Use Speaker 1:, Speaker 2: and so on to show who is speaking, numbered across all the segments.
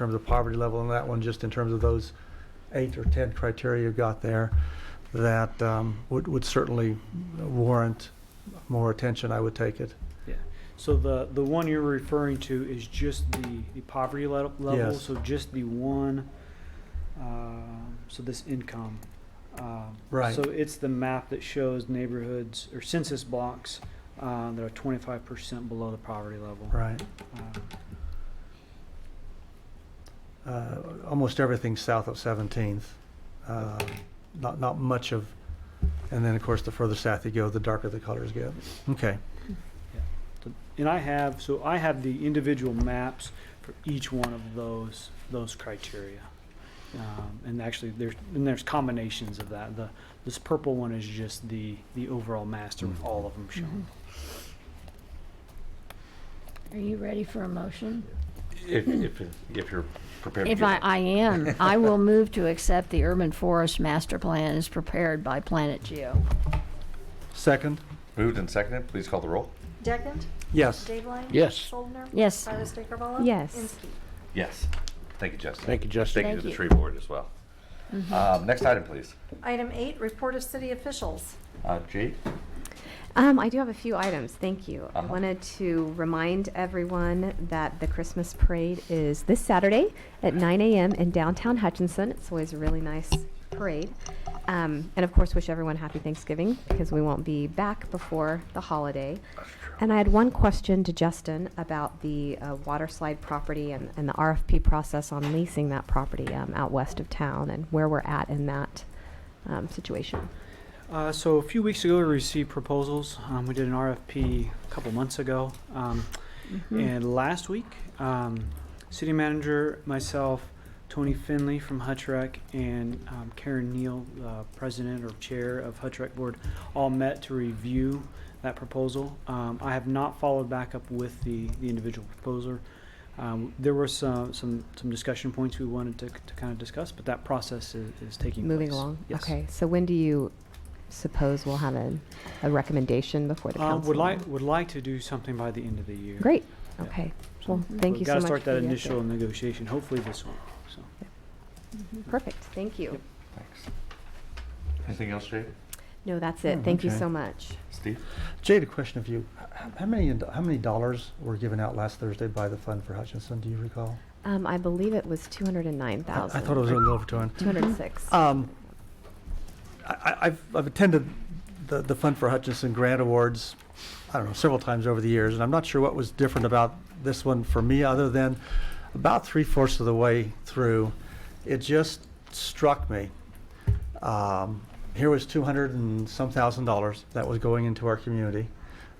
Speaker 1: terms of poverty level and that one, just in terms of those eight or 10 criteria you got there, that um, would would certainly warrant more attention, I would take it.
Speaker 2: So the, the one you're referring to is just the, the poverty le- level,
Speaker 1: Yes.
Speaker 2: so just the one, um, so this income. um,
Speaker 1: Right.
Speaker 2: So it's the map that shows neighborhoods or census blocks uh, that are twenty-five percent below the poverty level.
Speaker 1: Right.
Speaker 2: Uh,
Speaker 1: uh, almost everything south of 17th. Uh, Not, not much of, and then, of course, the further south you go, the darker the colors get. Okay,
Speaker 2: And I have, so I have the individual maps for each one of those, those criteria. Um, And actually, there's, and there's combinations of that. The, this purple one is just the, the overall master
Speaker 1: Mm-hmm.
Speaker 2: with all of them shown.
Speaker 3: Are you ready for a motion?
Speaker 4: If, if, if you're prepared. to
Speaker 3: If
Speaker 4: give
Speaker 3: I,
Speaker 4: it.
Speaker 3: I am, I will move to accept the urban forest master plan as prepared by Planet Geo.
Speaker 1: second?
Speaker 4: Moved and seconded, please call the roll.
Speaker 5: Deckent?
Speaker 1: Yes.
Speaker 5: Dave
Speaker 6: Yes.
Speaker 5: Soldner?
Speaker 3: Yes.
Speaker 5: Silas Dickert-Ballo?
Speaker 7: Yes.
Speaker 5: Inskeep.
Speaker 4: Yes. Thank you, Justin.
Speaker 6: Thank you, Justin.
Speaker 4: Thank you
Speaker 3: Thank
Speaker 4: to the
Speaker 3: you. Mm-hmm.
Speaker 4: tree board as well. Um, next item, please.
Speaker 5: Item eight, report of city officials.
Speaker 4: Uh, Jade?
Speaker 7: Um, I do have a few items, thank you. I
Speaker 4: Uh-huh.
Speaker 7: wanted to remind everyone that the Christmas parade is this Saturday at 9 a.m. in downtown Hutchinson. It's always a really nice parade. Um, and of course, wish everyone happy Thanksgiving because we won't be back before the holiday. And I had one question to Justin about the uh, water slide property and, and the RFP process on leasing that property um, out west of town and where we're at in that um, situation.
Speaker 2: Uh, so a few weeks ago, we received proposals. Um, we did an RFP a couple months ago. Um,
Speaker 7: Hmm.
Speaker 3: Mm-hmm.
Speaker 2: And last week, um, city manager, myself, Tony Finley from Hutchrec, and um, Karen Neal, uh, president or chair of Hutchrec Board, all met to review that proposal. Um, I have not followed back up with the, the individual proposer. Um, there were some, some, some discussion points we wanted to, to kind of discuss, but that process is, is taking
Speaker 7: Moving
Speaker 2: place.
Speaker 7: along.
Speaker 2: Yes.
Speaker 7: Okay. So when do you suppose we'll have a, a recommendation before the
Speaker 2: Uh,
Speaker 7: council?
Speaker 2: would like, would like to do something by the end of the year.
Speaker 7: Great.
Speaker 2: Yeah.
Speaker 7: Okay. Well, thank you
Speaker 2: Got
Speaker 7: so much.
Speaker 2: to start
Speaker 7: for
Speaker 2: that
Speaker 7: the
Speaker 2: initial
Speaker 7: update.
Speaker 2: negotiation, hopefully this one, so.
Speaker 7: Perfect. Thank you.
Speaker 2: Yep.
Speaker 4: Thanks. Anything else, Jade?
Speaker 7: No, that's it.
Speaker 1: Mm,
Speaker 7: Thank you
Speaker 1: okay.
Speaker 7: so much.
Speaker 4: Steve?
Speaker 1: Jade, a question of you. H- h- How many, how many dollars were given out last Thursday by the Fund for Hutchinson, do you recall?
Speaker 7: Um, I believe it was two hundred and nine
Speaker 1: I-
Speaker 7: thousand.
Speaker 1: I thought it was a little over 200.
Speaker 7: two hundred six.
Speaker 1: Um, I- I, I've, I've attended the, the Fund for Hutchinson Grant Awards, I don't know, several times over the years, and I'm not sure what was different about this one for me, other than about three fourths of the way through, it just struck me. Um, here was two hundred and some thousand dollars that was going into our community.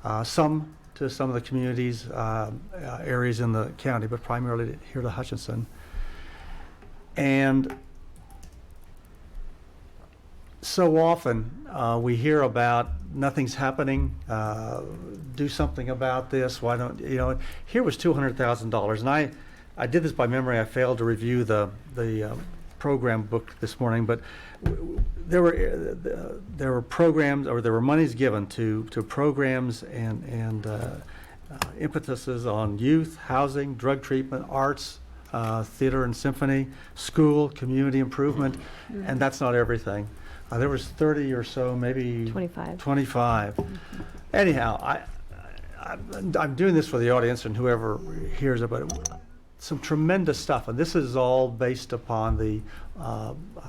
Speaker 1: Uh, some to some of the communities, uh, uh, areas in the county, but primarily here to Hutchinson. And so often uh, we hear about nothing's happening. Uh, do something about this. Why don't you know? Here was two hundred thousand dollars, and I, I did this by memory. I failed to review the the um, program book this morning, but w- w- there were uh, there were programs or there were monies given to to programs and and uh, uh, impetuses on youth, housing, drug treatment, arts, uh, theater and symphony, school, community improvement, and that's not everything. Uh, there was 30 or so, maybe
Speaker 7: 25.
Speaker 1: 25. Anyhow, I, I, I'm- I'm doing this for the audience and whoever hears about it. Some tremendous stuff, and this is all based upon the uh, uh,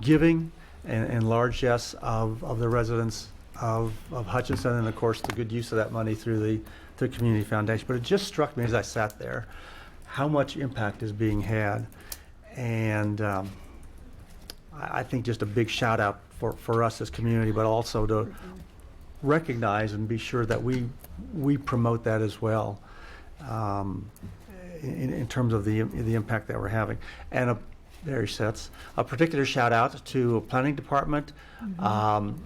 Speaker 1: giving and, and largesse of, of the residents of, of Hutchinson, and of course, the good use of that money through the, through Community Foundation. But it just struck me as I sat there, how much impact is being had. And, um, I, I think just a big shout out for, for us as community, but also to recognize and be sure that we, we promote that as well um, in, in terms of the, the impact that we're having. And a, there he sits. A particular shout out to planning department, um,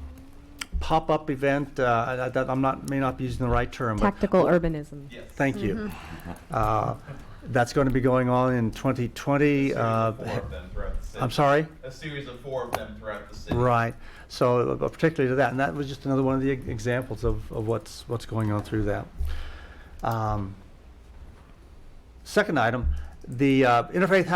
Speaker 1: pop-up event, uh, I- I, that I'm not, may not be using the right term, but
Speaker 7: Tactical urbanism.
Speaker 1: Thank you. Uh, That's going to be going on in 2020. uh,
Speaker 8: four of them throughout the city.
Speaker 1: I'm sorry?
Speaker 8: A series of four of them throughout the city.
Speaker 1: Right. So uh, particularly to that, and that was just another one of the e- examples of, of what's, what's going on through that. Um, Second item, The uh, Interfaith